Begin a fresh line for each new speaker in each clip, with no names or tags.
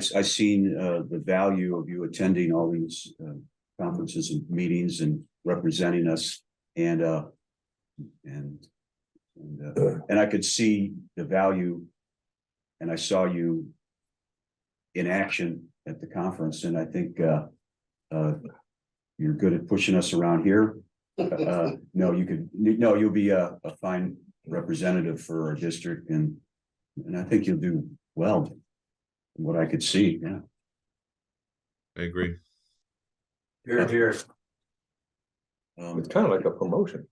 I- I seen uh the value of you attending all these uh conferences and meetings and representing us and uh. And and uh, and I could see the value. And I saw you. In action at the conference and I think uh uh. You're good at pushing us around here. Uh, no, you could, no, you'll be a a fine representative for our district and. And I think you'll do well. from What I could see, yeah.
I agree.
Here, here.
Um,
It's kind of like a promotion.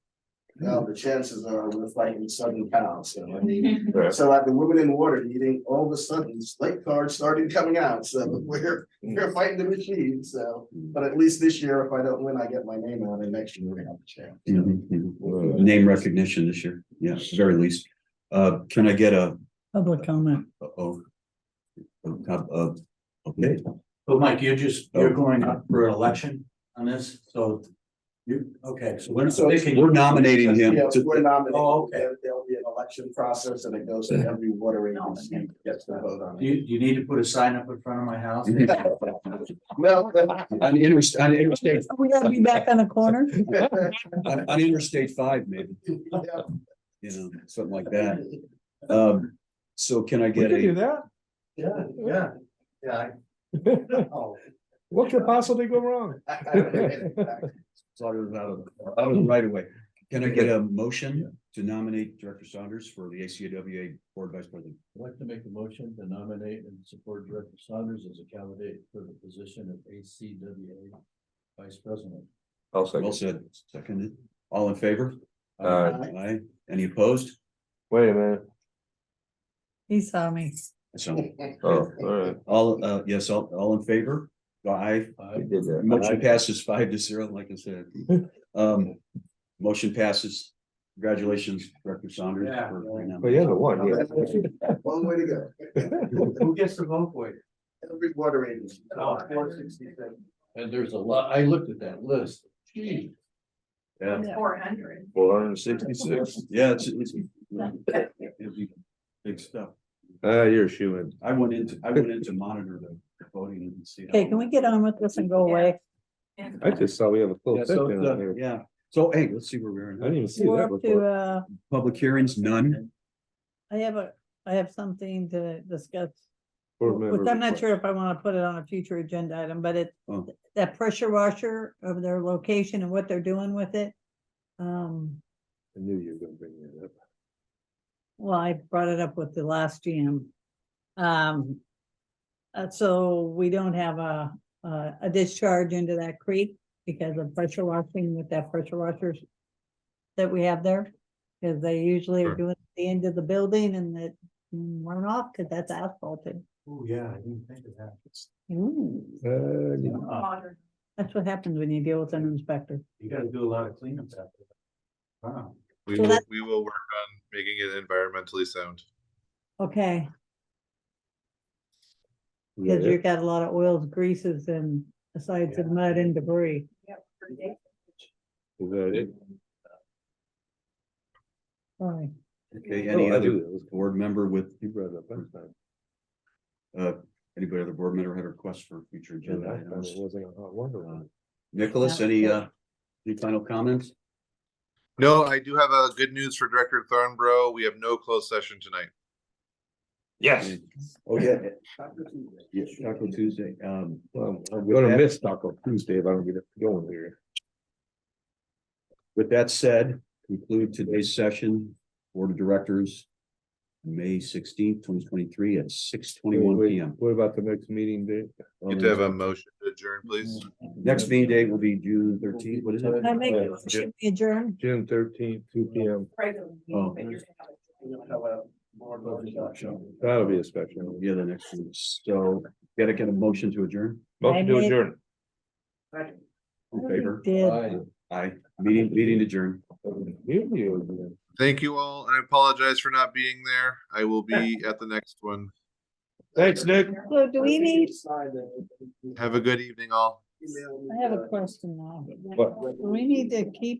Now, the chances are we're fighting Southern Cal, so I mean,
Mm-hmm.
Right.
so at the Women in Water meeting, all of a sudden, slate cards started coming out, so we're, we're fighting the machine, so. But at least this year, if I don't win, I get my name out, and next year we're gonna have a chance.
mhm, mhm. Name recognition this year, yeah, at the very least. Uh, can I get a,
Public comment.
oh? Uh, okay,
But Mike, you're just, you're
Oh.
going up for an election on this, so you, okay, so we're not
So-
picking.
we're nominating him.
Yeah,
to-
we're
Oh,
nominated,
okay.
There- there'll be an election process, and it goes to every water agency. that Gets to vote on
You,
it.
you need to put a sign up in front of my house.
Well,
On interstate, on interstate,
We gotta be back on the corner.
on on interstate five, maybe,
yeah,
you know, something like that. Um, so can I
We
get
could do
a,
that.
Yeah, yeah, yeah. I- oh,
What could possibly go wrong?
I- I don't know.
out of, uh, out of, out
Mm.
of Oh, right away. Can I get a motion to nominate Director Saunders for the ACWA Board Vice President?
I'd like to make a motion to nominate and support Director Saunders as a candidate for the position of ACWA Vice President.
I'll
Well
second.
said, seconded. All in favor?
Aye.
Aye. Any opposed?
Wait a minute.
He saw me.
So,
Oh, all right.
all, uh, yes, all, all in favor? Aye.
We
Aye.
did that.
Motion passes five to zero, like I said. Um, motion passes. Congratulations, Director Saunders.
Yeah.
for right now.
Well, you're the one, yeah.
One way to go,
Who gets the vote for you?
every water agency.
Oh.
466.
And there's a lot, I looked at that list. Gee,
Yeah,
Four hundred.
Four hundred and sixty-six.
yeah, it's, it's. it'll be Big stuff.
Ah, you're a shoo-in.
I went into, I went in to monitor the voting and see. how-
Okay, can we get on with this and go away?
I just saw we have a
Yeah,
closed
so,
session on
uh,
here.
yeah, so, hey, let's see where we're
I
in.
didn't even see
We're
that
up to,
before.
uh,
Public hearings, none.
I have a, I have something to discuss.
Board member
Which I'm not
report.
sure if I wanna put it on a future agenda item, but it,
Oh.
that pressure washer of their location and what they're doing with it. Um,
I knew you were gonna bring that up.
well, I brought it up with the last GM. Um, uh, so we don't have a, a a discharge into that creek because of pressure washing with that pressure washers that we have there, because they usually
Sure.
are doing it at the end of the building and it run off because that's asphalted.
Oh, yeah, I didn't think of that.
Uh, yeah.
Uh,
That's what happens when you deal with an inspector.
You gotta do a lot of cleanups after that. Wow.
We
So
will,
that-
we will work on making it environmentally sound.
Okay,
We
because
got
you've
it.
got a lot of oils, greases and besides the mud and debris.
Is that it?
Sorry.
Okay, any
Oh, I
other
do. That was cool.
board member with,
You brought it up last time.
uh, anybody other board member had a request for future
And
agenda
I found
items?
it wasn't on Hot Wonder Woman.
Nicholas, any, uh, any final comments?
No, I do have a good news for Director Thornborough. We have no closed session tonight.
Yes.
Oh, yeah, yeah,
Yes,
Taco Tuesday, um,
Well, I'm gonna miss Taco Tuesday if I don't get it going here.
with that said, conclude today's session, Board of Directors. May sixteenth, twenty twenty-three at six twenty-one
Wait,
P M.
What about the next meeting date? Um,
You do have a motion to adjourn,
Mm-hmm.
please.
Next meeting date will be June thirteenth, what is it?
I make,
Yeah.
should we adjourn?
June thirteenth, two P M.
Oh.
How about more workshop?
That'll be a special.
Yeah, the next one, so, gotta get a motion to adjourn,
Motion to
made-
adjourn.
in favor,
Did.
aye, meeting, meeting adjourned.
Here you go.
Thank you all. and I apologize for not being there. I will be at the next one.
Thanks, Nick.
So do we need,
Have a good evening, all.
I have a question now.
What?
Do we need to keep